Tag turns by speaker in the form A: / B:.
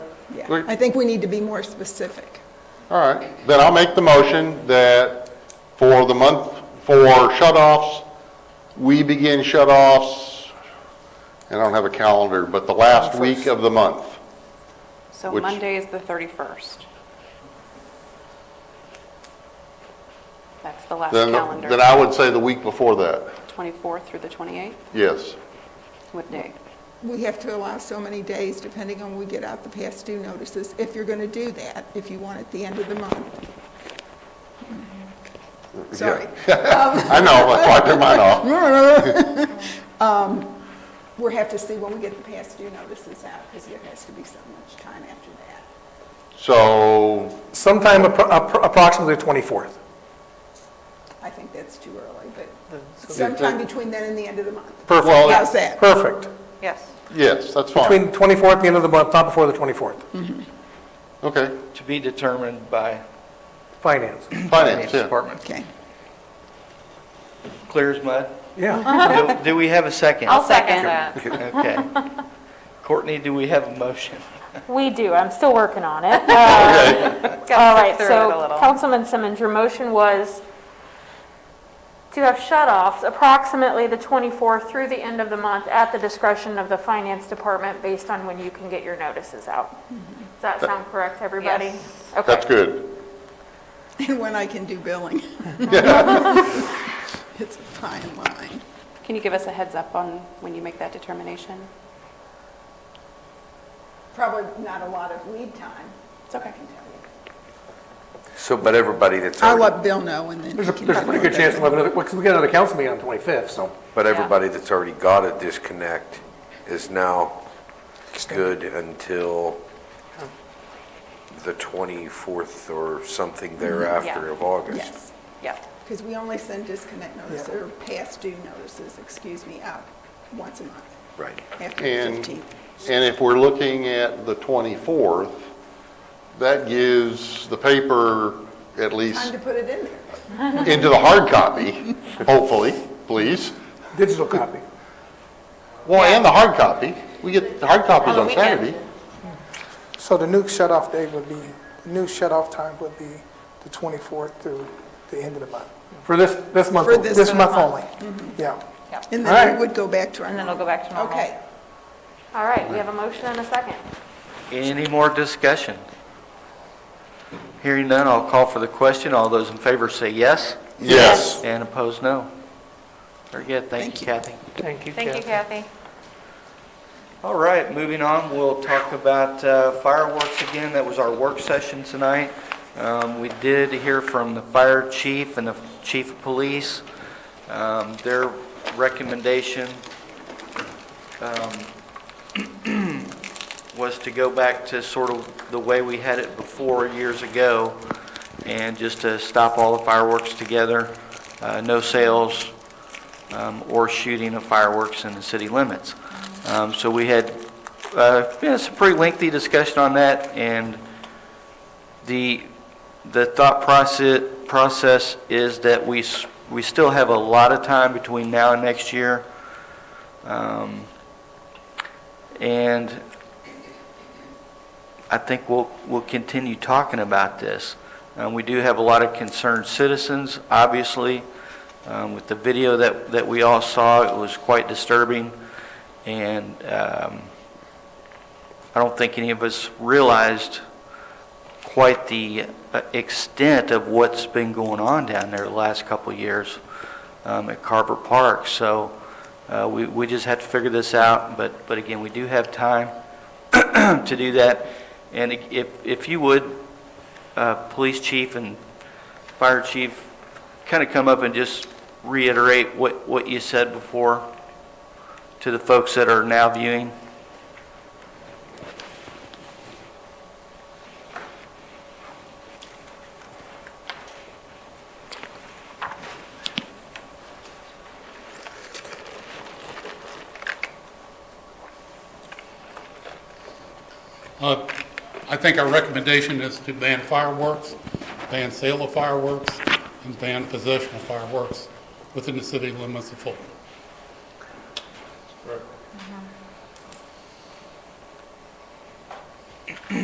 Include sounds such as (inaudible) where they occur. A: Wait.
B: I think we need to be more specific.
A: All right, then I'll make the motion that for the month, for shut-offs, we begin shut-offs, I don't have a calendar, but the last week of the month.
C: So
A: Which-
C: Monday is the 31st. That's the last
A: Then, then
C: calendar,
A: I would say the week before that,
C: 24th through the 28th.
A: yes.
C: What day?
B: We have to allow so many days, depending on when we get out the past due notices, if you're going to do that, if you want at the end of the month. Sorry.
A: I know, that's why I took mine off.
B: We'll have to see when we get the past due notices out, because there has to be so much time after that.
A: So,
D: Sometime appro- appro- approximately the 24th.
B: I think that's too early, but sometime between then and the end of the month.
D: Perfect.
A: Well,
B: How's that?
D: Perfect.
C: Yes.
A: yes, that's
D: Between
A: fine.
D: the 24th and the end of the month, not before the 24th.
A: Okay,
E: to be determined by
D: Finance.
A: finance,
E: finance
A: yeah.
E: department.
B: Okay. (laughs)
E: Clear as mud.
D: Yeah.
B: Uh-huh.
E: Do- Do we have a 2nd
F: I'll second that.
E: Okay. Courtney, do we have a motion?
F: We do, I'm still working
C: (laughs)
F: on it. Uh,
A: Okay,
F: All right,
C: through it a
F: so
C: little.
F: Councilman Simmons, your motion was to have shut-offs approximately the 24th through the end of the month at the discretion of the finance department based on when you can get your notices out. Does that sound correct, everybody?
C: Yes.
F: Okay.
A: that's good.
B: And when I can do billing. (laughs) It's a fine line.
C: Can you give us a heads up on when you make that determination?
B: Probably not a lot of lead time.
C: It's okay.
G: So, but everybody that's
B: I'll
G: already,
B: let Bill know and then.
D: There's a,
B: he can
D: there's a pretty
B: let
D: good
B: me know.
D: chance we'll have another, because we got another council meeting on the 25th, so.
G: but everybody that's already got a disconnect is now good until the 24th or something thereafter
C: Yeah.
G: of August.
B: Yes,
C: Yeah.
B: because we only send disconnect notices, or past due notices, excuse me, out once a month,
G: Right.
B: after the
A: And,
B: 15th.
A: and if we're looking at the 24th, that gives the paper at
B: Time
A: least
B: to put it in there.
A: into the hard copy, hopefully, please.
D: Digital copy.
A: Well, and the hard copy. Oh, We get the hard copies on Saturday.
H: So the new shut-off date would be, the new shut-off time would be the 24th through the end of the month.
D: For this, this month.
B: For this
H: This
B: month.
H: month only, yeah.
B: And
D: All
B: then
D: right.
B: we would go back to our.
F: And then it'll go back to normal.
B: Okay.
F: All right, we have a motion and a second.
E: Any more discussion? Hearing none, I'll call for the question. All those in favor say yes,
A: Yes.
E: and opposed, no. Very good, thank you, Kathy.
D: Thank you,
F: Thank you, Kathy.
E: All right, moving on, we'll talk about uh, fireworks again. That was our work session tonight. Um, We did hear from the fire chief and the chief of police. Um, Their recommendation um, (clears throat) was to go back to sort of the way we had it before years ago, and just to stop all the fireworks together, uh, no sales, um, or shooting of fireworks in the city limits. Um, So we had, uh, yeah, some pretty lengthy discussion on that, and the, the thought process, process is that we, s- we still have a lot of time between now and next year. Um, And I think we'll, we'll continue talking about this. Um, We do have a lot of concerned citizens, obviously. Um, With the video that, that we all saw, it was quite disturbing, and um, I don't think any of us realized quite the uh, extent of what's been going on down there the last couple of years um, at Carver Park. So uh, we, we just have to figure this out, but, but again, we do have time (clears throat) to do that. And if, if you would, uh, police chief and fire chief, kind of come up and just reiterate what, what you said before to the folks that are now viewing?
I: Uh, I think our recommendation is to ban fireworks, ban sale of fireworks, and ban possession of fireworks within the city limits of Fulton.